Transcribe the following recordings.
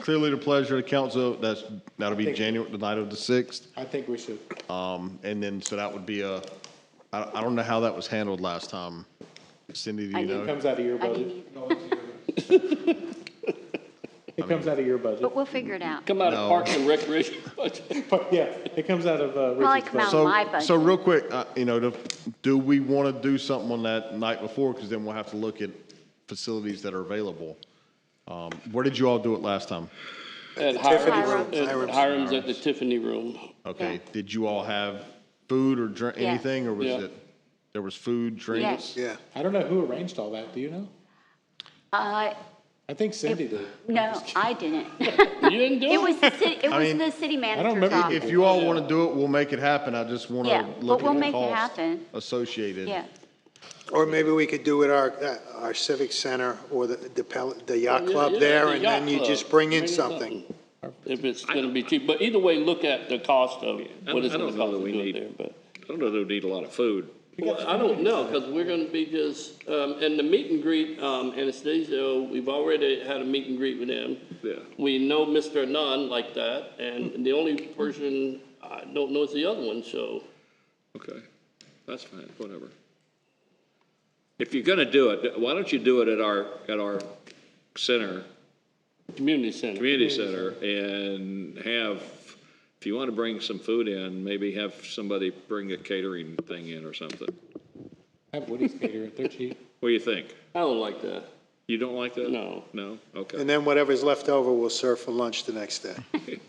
clearly the pleasure of the council. That's, that'll be January, the night of the 6th. I think we should, Um, And then, so that would be a, I, I don't know how that was handled last time. Cindy, do you it know? comes out of your I budget. didn't either, It comes out of your budget. but we'll figure it out. Come out No. of Parks and Recreation budget. But yeah, it comes out of uh, Probably Richard's come out budget. of So, my budget. so real quick, uh, you know, to- do we want to do something on that night before? Because then we'll have to look at facilities that are available. Um, Where did you all do it last time? At Room. Hiram's, at Hiram's at the Tiffany Room. Okay, Yeah. did you all have food or drink, Yeah. anything, or was Yeah. it, there was food, drinks? Yeah. I don't know who arranged all that, do you know? Uh, I think Cindy did. no, I didn't. You didn't do It was it? the city, it I was mean, the city don't manager's remember office. If you all want to do it, we'll make it happen, I just want Yeah, to but look we'll at the make it cost happen. associated. Yeah, Or maybe we could do it our, uh, our civic center or the, the Pel- the yacht Oh, Yeah, club yeah, there, the and then yacht you club. just bring in something. If it's gonna be cheap, but either way, look at the cost of what it's I gonna don't cost know that to we do it need- there, but. I don't know that we need a lot of food. Well, I don't know, because we're gonna be just, um, and the meet and greet, um, Anastasio, we've already had a meet and greet with them. Yeah. We know Mr. Anon like that, and the only person I don't know is the other one, so. Okay, that's fine, whatever. If you're gonna do it, why don't you do it at our, at our center, Community center. community center, and have, if you wanna bring some food in, maybe have somebody bring a catering thing in or something. Have Woody's cater it, they're cheap. What do you think? I don't like that. You don't like that? No. No? Okay. And then whatever's left over, we'll serve for lunch the next day.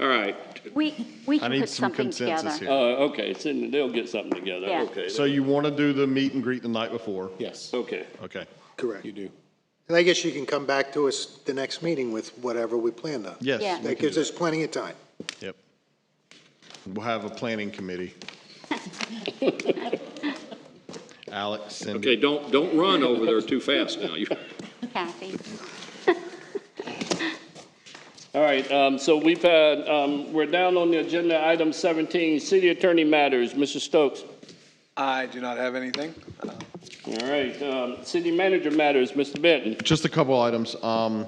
All right, we, we I can need put some something consensus together. here. Uh, okay, so they'll get something together, Yeah. okay. So you want to do the meet and greet the night before? Yes, Okay, Okay. Correct. you do. And I guess you can come back to us the next meeting with whatever we planned on. Yes. Yeah. we That can gives do us plenty of time. that. Yep. We'll have a planning committee. Alex, okay, Cindy, don't, don't run over there too fast now. You- Kathy, all right, um, so we've had, um, we're down on the agenda, item seventeen, city attorney matters, Mr. Stokes. I do not have anything. All right, um, city manager matters, Mr. Benton. just a couple items. Um,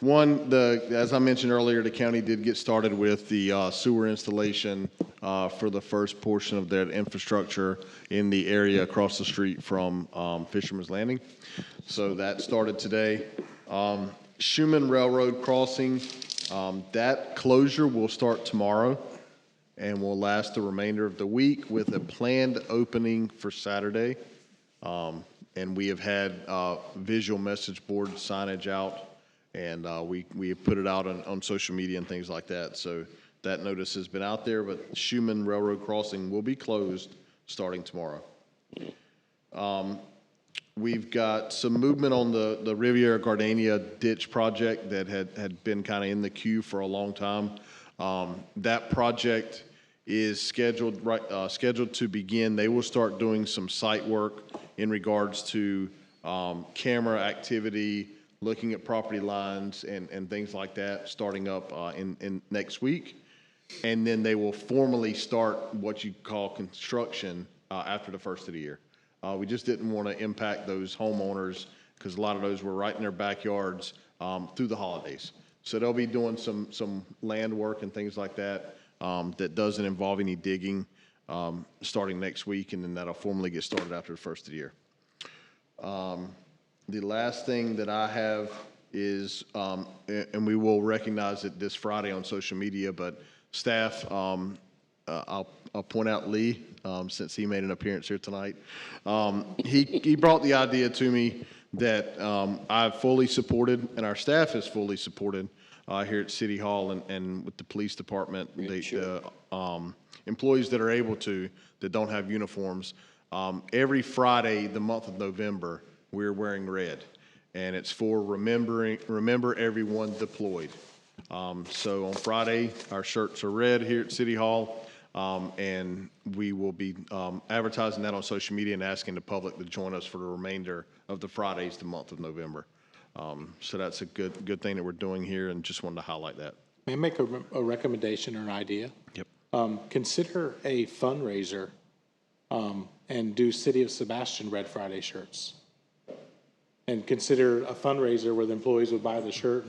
One, the, as I mentioned earlier, the county did get started with the uh, sewer installation uh, for the first portion of that infrastructure in the area across the street from um, Fisherman's Landing. So that started today. Um, Schuman Railroad Crossing, um, that closure will start tomorrow and will last the remainder of the week with a planned opening for Saturday. Um, And we have had uh, visual message board signage out, and uh, we, we have put it out on, on social media and things like that. So that notice has been out there, but Schuman Railroad Crossing will be closed starting tomorrow. We've got some movement on the, the Riviera Gardenia ditch project that had, had been kind of in the queue for a long time. Um, That project is scheduled, right, uh, scheduled to begin. They will start doing some site work in regards to, um, camera activity, looking at property lines and, and things like that, starting up, uh, in, in next week. And then they will formally start what you call construction uh, after the first of the year. Uh, We just didn't want to impact those homeowners because a lot of those were right in their backyards um, through the holidays. So they'll be doing some, some land work and things like that um, that doesn't involve any digging um, starting next week, and then that'll formally get started after the first of the year. The last thing that I have is, um, a- and we will recognize it this Friday on social media, but staff, um, uh, I'll, I'll point out Lee, um, since he made an appearance here tonight. Um, He, he brought the idea to me that um, I've fully supported, and our staff has fully supported uh, here at City Hall and, and with the police department, the- the um, employees that are able to, that don't have uniforms. Um, Every Friday, the month of November, we're wearing red, and it's for remembering, remember everyone deployed. Um, So on Friday, our shirts are red here at City Hall, um, and we will be um, advertising that on social media and asking the public to join us for the remainder of the Fridays, the month of November. Um, So that's a good, good thing that we're doing here, and just wanted to highlight that. May I make a, re- a recommendation or an idea? Yep. Um, consider a fundraiser, um, and do City of Sebastian Red Friday shirts. and consider a fundraiser where the employees would buy the shirt